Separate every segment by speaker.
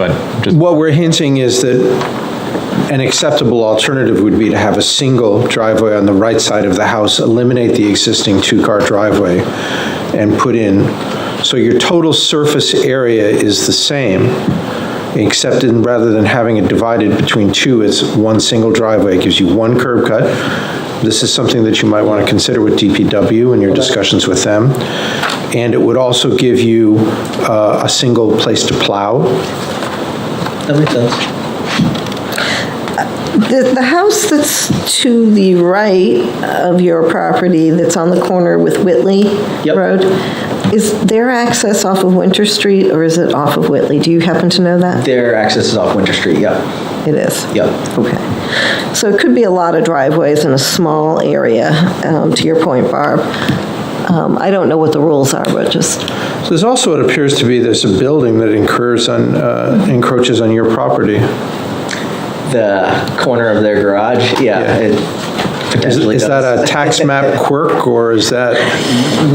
Speaker 1: but just,
Speaker 2: What we're hinting is that an acceptable alternative would be to have a single driveway on the right side of the house, eliminate the existing two-car driveway, and put in, so your total surface area is the same, except in, rather than having it divided between two, it's one single driveway, it gives you one curb cut. This is something that you might want to consider with DPW in your discussions with them. And it would also give you uh, a single place to plow,
Speaker 3: That makes sense.
Speaker 4: The, the house that's to the right of your property, that's on the corner with Whitley
Speaker 3: Yep.
Speaker 4: Road, is their access off of Winter Street or is it off of Whitley? Do you happen to know that?
Speaker 3: Their access is off Winter Street, yep,
Speaker 4: It is?
Speaker 3: yep.
Speaker 4: Okay. So it could be a lot of driveways in a small area, um, to your point, Barb. Um, I don't know what the rules are, but just,
Speaker 2: So There's also, it appears to be, there's a building that incurs on, uh, encroaches on your property.
Speaker 3: The corner of their garage,
Speaker 2: Yeah.
Speaker 3: yeah, it
Speaker 2: Is
Speaker 3: potentially
Speaker 2: is that a
Speaker 3: does.
Speaker 2: tax map quirk, or is that,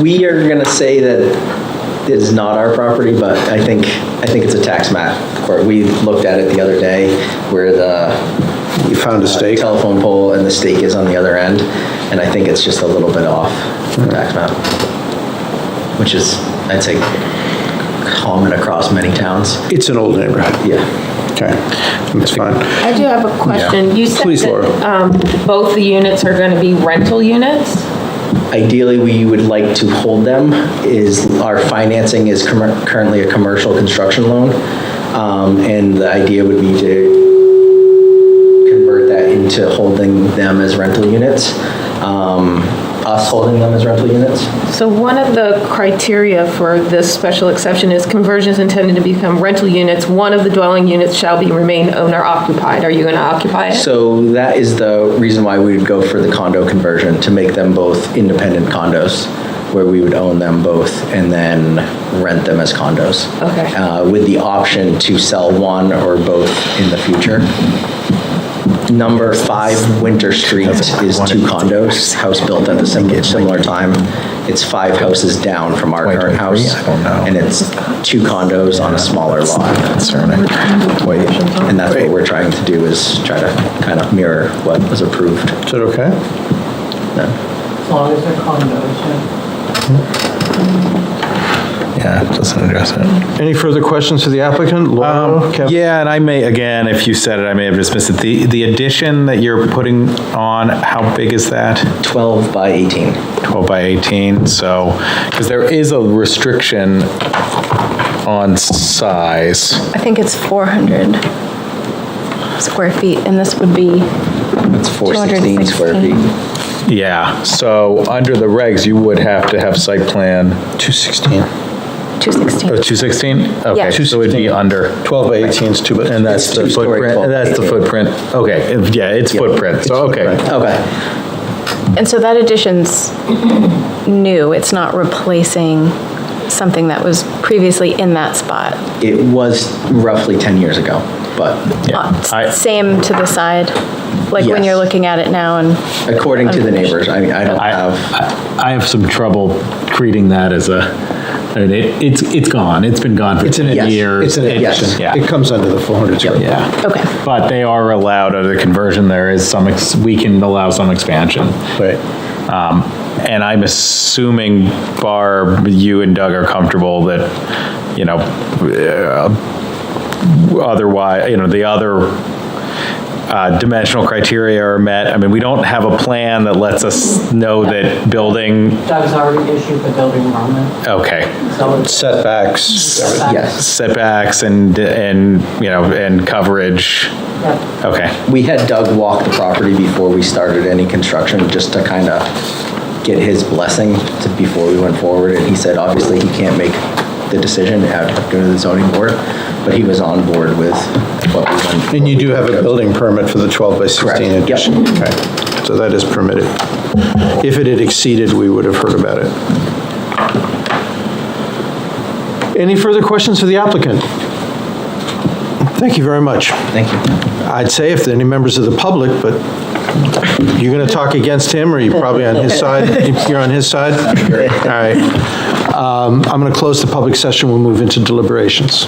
Speaker 3: We are going to say that it is not our property, but I think, I think it's a tax map. Or we looked at it the other day where the uh,
Speaker 2: you found a stake?
Speaker 3: telephone pole and the stake is on the other end, and I think it's just a little bit off the tax map, which is, I'd say, common across many towns.
Speaker 2: It's an old neighborhood.
Speaker 3: Yeah.
Speaker 2: Okay, that's fine.
Speaker 5: I do have a question. You said
Speaker 2: Please,
Speaker 5: that,
Speaker 2: Laura.
Speaker 5: um, both the units are going to be rental units?
Speaker 3: Ideally, we would like to hold them, is, our financing is commer- currently a commercial construction loan, um, and the idea would be to convert that into holding them as rental units, um, us holding them as rental units.
Speaker 5: So one of the criteria for this special exception is conversions intended to become rental units. One of the dwelling units shall be remain owner occupied. Are you going to occupy it?
Speaker 3: So that is the reason why we would go for the condo conversion, to make them both independent condos, where we would own them both and then rent them as condos.
Speaker 5: Okay.
Speaker 3: Uh, With the option to sell one or both in the future. Number five, Winter Street is two condos, house built at the same- similar time. It's five houses down from our current house. And it's two condos on a smaller lot. Wait, And that's what we're trying to do, is try to kind of mirror what was approved.
Speaker 2: Is that okay?
Speaker 6: As long as they're condos, yeah.
Speaker 7: Yeah, it doesn't address it.
Speaker 2: Any further questions to the applicant? Laura, Kevin?
Speaker 1: yeah, and I may, again, if you said it, I may have dismissed it. The, the addition that you're putting on, how big is that?
Speaker 3: 12 by 18.
Speaker 1: 12 by 18, so, because there is a restriction on size.
Speaker 8: I think it's 400 square feet, and this would be,
Speaker 3: That's 416 square feet.
Speaker 8: 216.
Speaker 1: Yeah, so under the regs, you would have to have site plan,
Speaker 2: 216.
Speaker 1: oh,
Speaker 8: 216.
Speaker 1: 216?
Speaker 8: Yeah.
Speaker 1: Okay, so it'd be under.
Speaker 2: 12 by 18 is two, but,
Speaker 1: And that's
Speaker 3: It's
Speaker 1: the
Speaker 3: two-story,
Speaker 1: footprint,
Speaker 3: 12
Speaker 1: and
Speaker 3: by
Speaker 1: that's the
Speaker 3: 18.
Speaker 1: footprint, okay, if- yeah, it's footprint, so, okay.
Speaker 3: Okay.
Speaker 8: And so that addition's new, it's not replacing something that was previously in that spot.
Speaker 3: It was roughly 10 years ago, but
Speaker 1: Yeah.
Speaker 8: Uh, s-
Speaker 1: I-
Speaker 8: Same to the side, like when you're
Speaker 3: Yes.
Speaker 8: looking at it now, and
Speaker 3: according to the neighbors, I mean, I don't
Speaker 1: I,
Speaker 3: have,
Speaker 1: I- I have some trouble treating that as a, I mean, it, it's, it's gone, it's been gone for
Speaker 2: It's an
Speaker 1: 10
Speaker 2: addition.
Speaker 1: years.
Speaker 2: It's an
Speaker 1: It-
Speaker 2: addition.
Speaker 1: Yeah.
Speaker 2: It Oh. comes under the 400 square. foot.
Speaker 1: Yeah.
Speaker 8: Okay.
Speaker 1: But they are allowed under the conversion, there is some, ex- we can allow some expansion.
Speaker 2: Right.
Speaker 1: Um, And I'm assuming, Barb, you and Doug are comfortable that, you know, uh, otherwise, you know, the other uh, dimensional criteria are met. I mean, we don't have a plan that lets us know that building,
Speaker 6: Doug's already issued the building permit,
Speaker 1: okay,
Speaker 6: so it's.
Speaker 2: Setbacks, everything.
Speaker 3: yes.
Speaker 1: setbacks and, and, you know, and coverage.
Speaker 6: Yep.
Speaker 1: Okay.
Speaker 3: We had Doug walk the property before we started any construction, just to kind of get his blessing to, before we went forward. And he said, obviously, he can't make the decision, it had to go to the zoning board, but he was on board with what we went.
Speaker 2: And you do have a building permit for the 12 by 16
Speaker 3: Correct. Yep.
Speaker 2: addition? Okay. So that is permitted. If it had exceeded, we would have heard about it. Any further questions for the applicant? Thank you very much.
Speaker 3: Thank you.
Speaker 2: I'd say if there are any members of the public, but you're going to talk against him, or you're probably on his side? You're on his side? All right. Um, I'm going to close the public session. We'll move into deliberations.